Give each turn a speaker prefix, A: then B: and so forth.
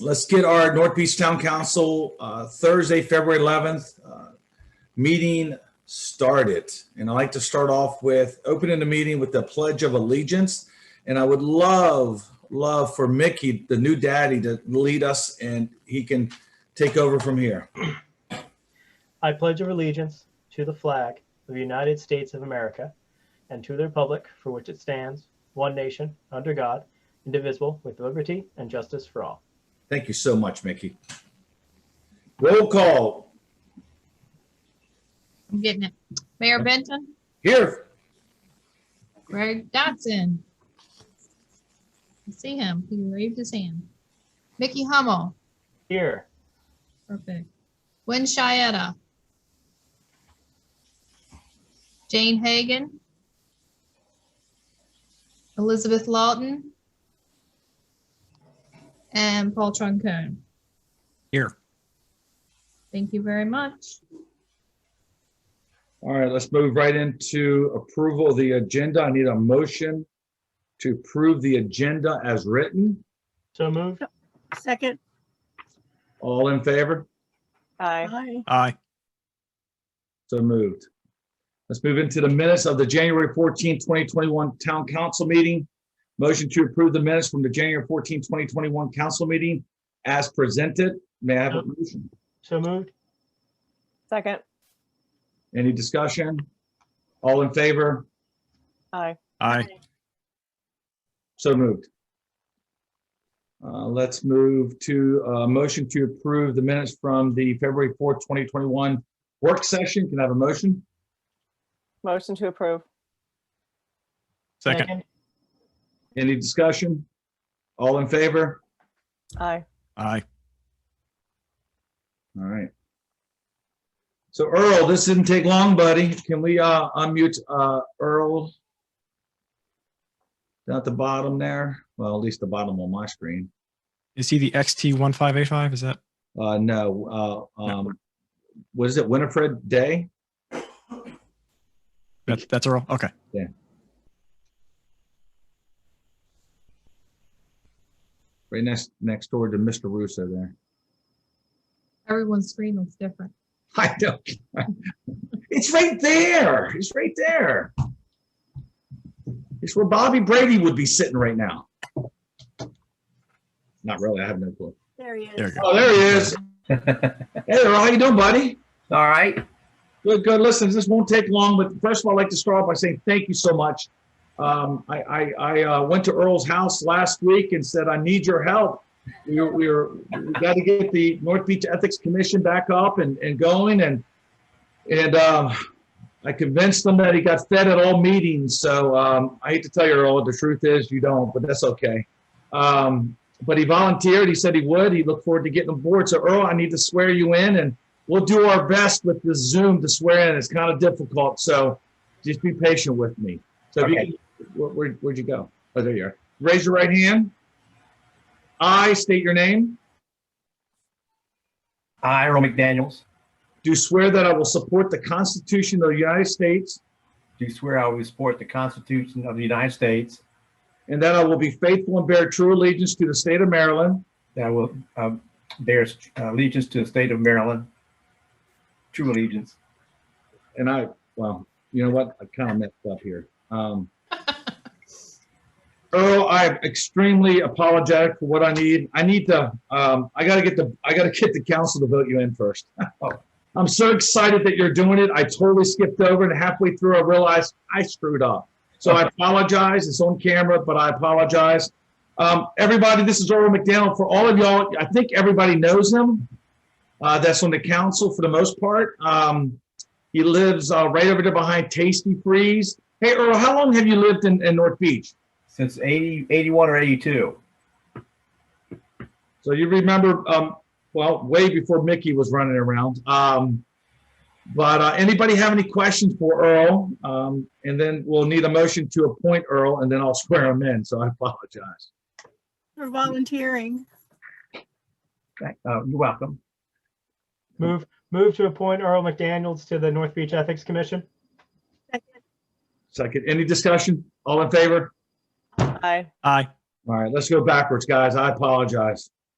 A: let's get our North Beach Town Council uh, Thursday, February 11th uh, meeting started. And I'd like to start off with opening the meeting with the Pledge of Allegiance. And I would love, love for Mickey, the new daddy, to lead us and he can take over from here.
B: I pledge of allegiance to the flag of the United States of America and to the republic for which it stands, one nation, under God, indivisible, with liberty and justice for all.
A: Thank you so much, Mickey. Roll call
C: I'm getting it. Mayor Benton,
A: here.
C: Greg Dotson. I see him. He waved his hand. Mickey Hummel,
B: Here,
C: perfect. Gwen Chieta. Jane Hagan. Elizabeth Lawton. And Paul Troncone.
D: Here.
C: Thank you very much.
A: All right, let's move right into approval of the agenda. I need a motion to approve the agenda as written.
B: so moved.
E: Second,
A: All in favor?
F: Aye.
E: aye.
D: Aye.
A: So moved. Let's move into the minutes of the January 14, 2021 Town Council meeting. Motion to approve the minutes from the January 14, 2021 Council meeting as presented. May I have a motion?
B: So moved.
F: Second.
A: Any discussion? All in favor?
F: Aye.
D: Aye.
A: So moved. Uh, Let's move to a motion to approve the minutes from the February 4th, 2021 work session. Can I have a motion?
F: Motion to approve.
D: Second.
A: Any discussion? All in favor?
F: Aye.
D: Aye.
A: All right. So Earl, this didn't take long, buddy. Can we uh, unmute uh, Earl? Down at the bottom there, well, at least the bottom on my screen.
D: Is he the XT1585? Is that?
A: Uh, No, uh, um, what is it, Winifred Day?
D: That's, that's Earl? Okay.
A: Right next, next door to Mr. Russo there.
C: Everyone's screen looks different.
A: I know. It's right there. It's right there. It's where Bobby Brady would be sitting right now. Not really. I have no clue.
E: There he
D: There you
E: is.
D: go.
A: Oh, there he is. Hey, Earl, how you doing, buddy?
G: All right.
A: Good, good. Listen, this won't take long, but first of all, I'd like to start off by saying thank you so much. Um, I, I, I uh, went to Earl's house last week and said, I need your help. We were, we were, we got to get the North Beach Ethics Commission back up and, and going and, and, um, I convinced him that he got fed at all meetings. So, um, I hate to tell you, Earl, the truth is you don't, but that's okay. Um, but he volunteered. He said he would. He looked forward to getting on board. So Earl, I need to swear you in and we'll do our best with the Zoom to swear in. It's kind of difficult, so just be patient with me. So, if you-
G: Okay.
A: where, where, where'd you go? Oh, there you are. Raise your right hand. I state your name.
G: I, Earl McDaniels,
A: Do swear that I will support the Constitution of the United States
G: do swear I will support the Constitution of the United States,
A: and that I will be faithful and bear true allegiance to the state of Maryland
G: that I will uh, bear uh, allegiance to the state of Maryland, true allegiance.
A: and I, well, you know what? I kind of messed up here. Um, Earl, I'm extremely apologetic for what I need. I need to, um, I gotta get the, I gotta get the council to vote you in first. Oh, I'm so excited that you're doing it. I totally skipped over and halfway through I realized I screwed up. So I apologize. It's on camera, but I apologize. Um, everybody, this is Earl McDaniel. For all of y'all, I think everybody knows him. Uh, that's on the council for the most part. Um, he lives uh, right over there behind Tasty Freeze. Hey, Earl, how long have you lived in, in North Beach?
G: Since 80, 81 or 82.
A: So you remember, um, well, way before Mickey was running around. Um, but uh, anybody have any questions for Earl? Um, and then we'll need a motion to appoint Earl, and then I'll swear him in. So I apologize.
E: For volunteering.
G: Thank- uh, You're welcome.
B: Move, move to appoint Earl McDaniels to the North Beach Ethics Commission.
E: Second,
A: Second, any discussion? All in favor?
F: Aye.
D: Aye.
A: All right, let's go backwards, guys. I apologize.